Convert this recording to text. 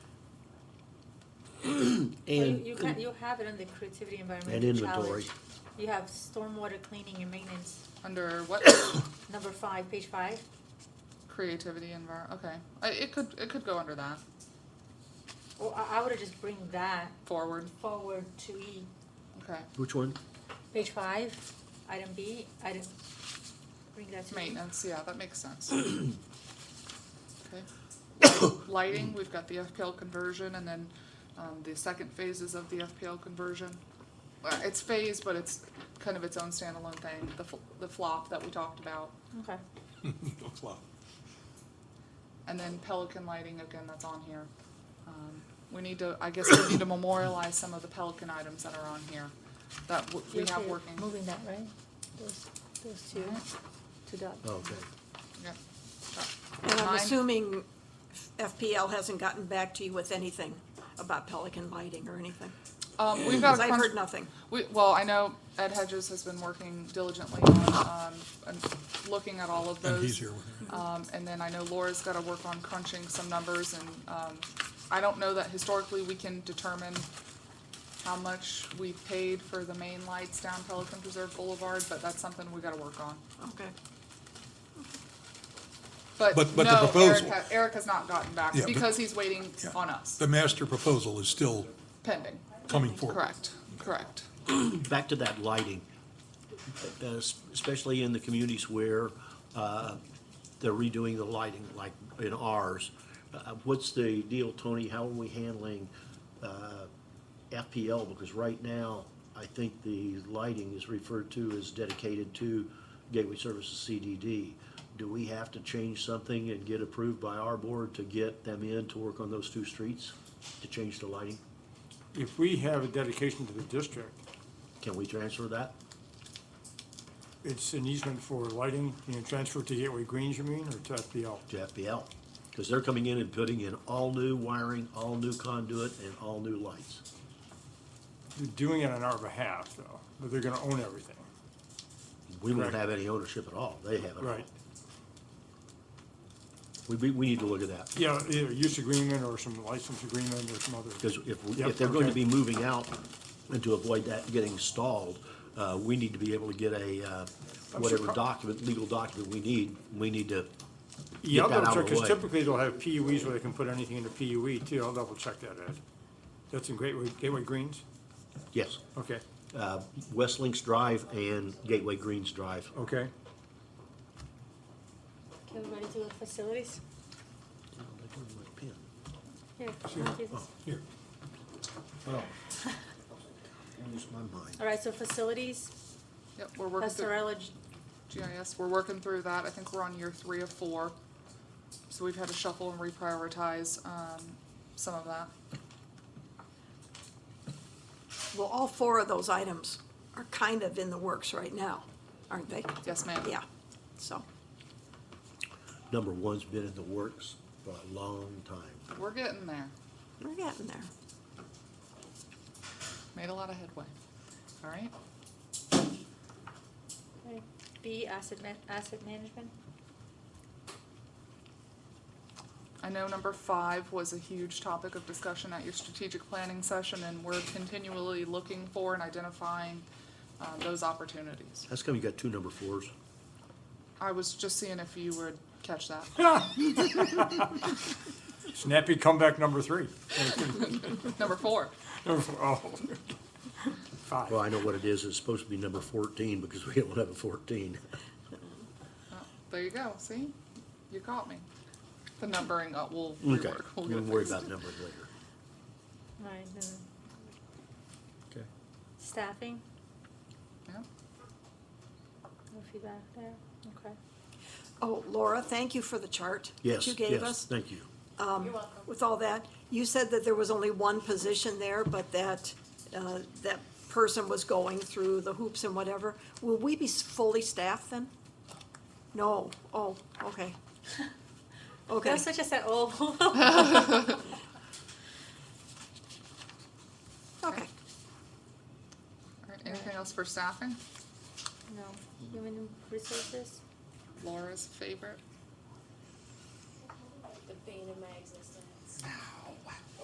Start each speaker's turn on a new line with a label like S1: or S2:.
S1: Well, you-
S2: and,
S1: You can, you have it under creativity
S2: and
S1: environmental
S2: inventory.
S1: challenge. You have stormwater cleaning and maintenance,
S3: Under what
S1: number five, page five.
S3: creativity envir? Okay, I, it could it could go under that
S1: Or I, I would just bring that
S3: forward.
S1: forward to E,
S3: Okay,
S2: Which one?
S1: page five, item B, item, bring that to E.
S3: maintenance. Yeah, that makes sense. okay, lighting. We've got the FPL conversion, and then um, the second phases of the FPL conversion. Uh, it's phased, but it's kind of its own standalone thing. The fl- the flop that we talked about,
S1: Okay,
S4: Looks low.
S3: and then Pelican lighting again. That's on here. Um, we need to. I guess we need to memorialize some of the Pelican items that are on here that w- we
S1: You're
S3: have
S1: okay
S3: working. Uh-huh.
S1: Moving that, right? Those, those two, to dot.
S2: Oh, Okay.
S3: Yep.
S5: And I'm
S3: Mine-
S5: assuming FPL hasn't gotten back to you with anything about Pelican lighting or anything?
S3: Um, we've got
S5: Because
S3: a
S5: I've heard
S3: crunch,
S5: nothing.
S3: we, well, I know Ed Hedges has been working diligently on, um, and looking at all of those.
S4: And he's here with her.
S3: Um, and then I know Laura's gotta work on crunching some numbers and, um, I don't know that historically we can determine how much we paid for the main lights down Pelican Preserve Boulevard, but that's something we gotta work on.
S5: Okay.
S3: But
S4: But- but the
S3: no, Eric,
S4: proposal-
S3: ha- Eric has not gotten back
S4: Yeah, but-
S3: because he's waiting
S4: Yeah.
S3: on us,
S4: The master proposal is still
S3: pending.
S4: coming forward.
S3: Correct, correct.
S2: Back to that lighting, uh, es- especially in the communities where uh, they're redoing the lighting, like in ours. Uh, What's the deal, Tony? How are we handling uh, FPL? Because right now, I think the lighting is referred to as dedicated to Gateway Services CDD. Do we have to change something and get approved by our board to get them in to work on those two streets, to change the lighting?
S6: If we have a dedication to the district,
S2: Can we transfer that?
S6: it's an easement for lighting, you know, transfer to Gateway Greens, you mean, or to FPL?
S2: to FPL, because they're coming in and putting in all new wiring, all new conduit, and all new lights.
S6: They're doing it on our behalf, though, but they're gonna own everything,
S2: We won't
S6: Correct.
S2: have any ownership at all, they have it all.
S6: right?
S2: We, we, we need to look at that,
S6: Yeah, either use agreement or some license agreement or some other.
S2: because if, we- if
S6: Yep,
S2: they're going to
S6: okay.
S2: be moving out, and to avoid that getting stalled, uh, we need to be able to get a, uh, whatever
S6: surprised.
S2: document, legal document we need, we need to,
S6: Yeah, I'll
S2: get that out
S6: double
S2: of
S6: check,
S2: the
S6: because
S2: way.
S6: typically they'll have PUEs where they can put anything in the PUE E, too, I'll double check that, Ed. That's in Gateway, Gateway Greens?
S2: yes.
S6: Okay,
S2: Uh, West Links Drive and Gateway Greens Drive.
S6: okay.
S1: Okay, we ready to go to facilities? Yeah.
S2: Oh.
S6: Here.
S2: Lose my mind.
S1: All right, so facilities,
S3: Yep, we're working through.
S1: Pastorella, G-
S3: GIS, we're working through that, I think we're on year three of four. So we've had to shuffle and reprioritize, um, some of that.
S5: Well, all four of those items are kind of in the works right now, aren't they?
S3: Yes, ma'am.
S5: Yeah, so,
S2: Number one's been in the works for a long time.
S3: We're getting there,
S5: we're getting there.
S3: made a lot of headway, all right?
S1: B, asset ma- asset management.
S3: I know number five was a huge topic of discussion at your strategic planning session, and we're continually looking for and identifying, um, those opportunities.
S2: That's come, you got two number fours.
S3: I was just seeing if you would catch that.
S6: Snappy comeback number three.
S3: Number four,
S6: Oh.
S2: Well,
S6: Five.
S2: I know what it is. It's supposed to be number fourteen because we don't have a fourteen.
S3: Oh, there you go, see? You caught me. The numbering, uh, we'll
S2: Okay,
S3: rework,
S2: we'll
S3: we'll get it
S2: worry
S3: fixed.
S2: about numbers later.
S1: All right, then
S2: Okay.
S1: staffing,
S3: Yeah.
S1: no feedback there, okay.
S5: Oh, Laura, thank you for the chart that
S2: Yes,
S5: you gave
S2: yes,
S5: us.
S2: thank you.
S1: You're welcome.
S5: With all that, you said that there was only one position there, but that, uh, that person was going through the hoops and whatever. Will we be s- fully staffed then? No, oh, okay. Okay,
S1: That's such a set, oh.
S5: okay.
S3: All right, anything else for staffing?
S1: No, human resources,
S3: Laura's favorite.
S7: the bane of my existence.